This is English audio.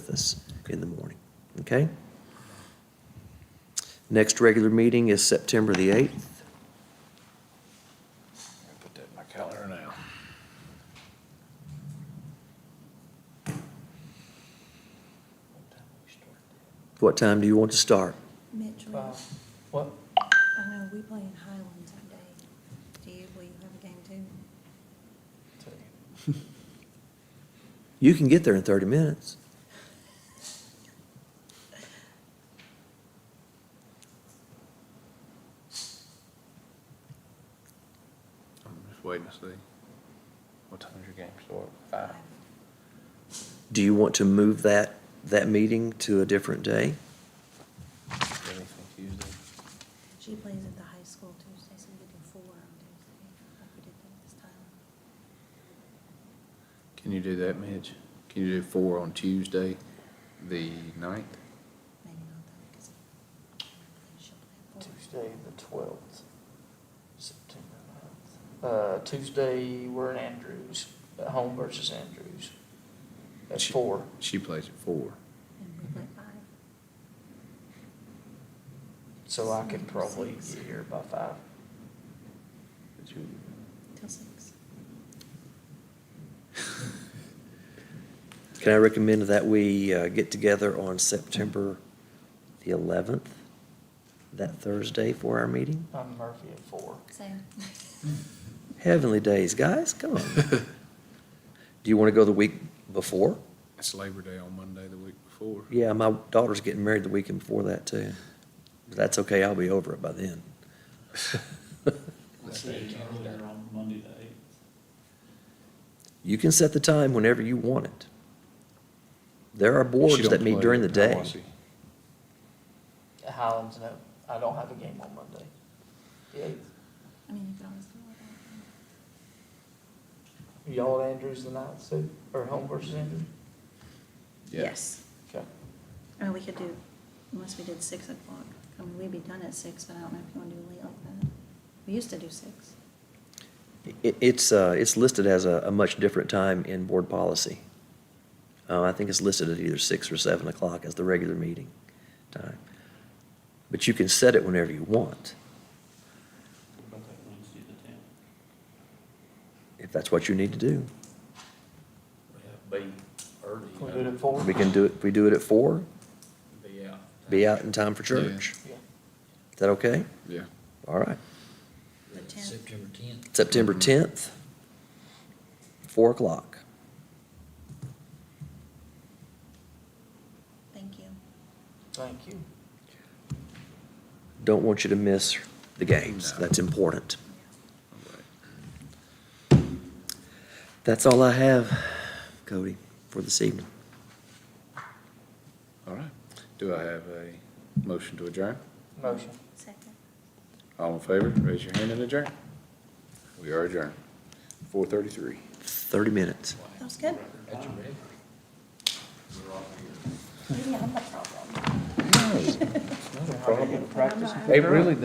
office in the morning, okay? Next regular meeting is September the 8th. Put that in my calendar now. What time do you want to start? Mitchell, Well, I What, know we play in Highlands that day. Do you, will you have a game too? You can get there in 30 minutes. I'm just waiting to see. What time is your game start? Five? Do you want to move that, that meeting to a different day? Anything Tuesday? She plays at the high school Tuesday, so we do four on Tuesday, like we did that this time. Can you do that, Mitch? Can you do four on Tuesday, the ninth? Maybe not though, because she'll play at four. Tuesday, the twelfth, September 9th. Uh, Tuesday, we're in Andrews, at home versus Andrews. That's She- four. She plays at four. And we Mm-hmm. play five. So I can probably Six. get here by five. Till six. Can I recommend that we uh, get together on September the 11th, that Thursday for our meeting? I'm Murphy at four. Same. Heavenly days, guys, come on. Do you want to go the week before? It's Labor Day on Monday, the week before. Yeah, my daughter's getting married the weekend before that, too. But that's okay, I'll be over it by then. Let's say it's earlier on Monday the eighth. You can set the time whenever you want it. There are She boards don't that meet play during the at day. Hiawassee. At Highlands, no, I don't have a game on Monday. The eighth, I mean, you could always do it. y'all at Andrews the ninth, so, or home versus Andrews? Yeah. Yes. Okay. I mean, Oh, we could do, unless we did six o'clock. I mean, we'd be done at six, but I don't know if you want to do late like that. We used to do six. It, it's, uh, it's listed as a, a much different time in board policy. Uh, I think it's listed at either six or seven o'clock as the regular meeting time. But you can set it whenever you want, What about that Wednesday the tenth? if that's what you need to do. We have B early. Can we do it at four? We can do it, we do it at four, Be out. be out in time for church. Yeah. Is that okay? Yeah. All right. The tenth, September tenth. September tenth, four o'clock. thank you. Thank you. Don't want you to miss the games. No. That's important. All right. That's all I have, Cody, for this evening. All right. Do I have a motion to adjourn? Motion. Second. All in favor, raise your hand and adjourn. We are adjourned. Four thirty-three. Thirty minutes. That was good. That's your record. Maybe I'm the problem. No, Practice. it really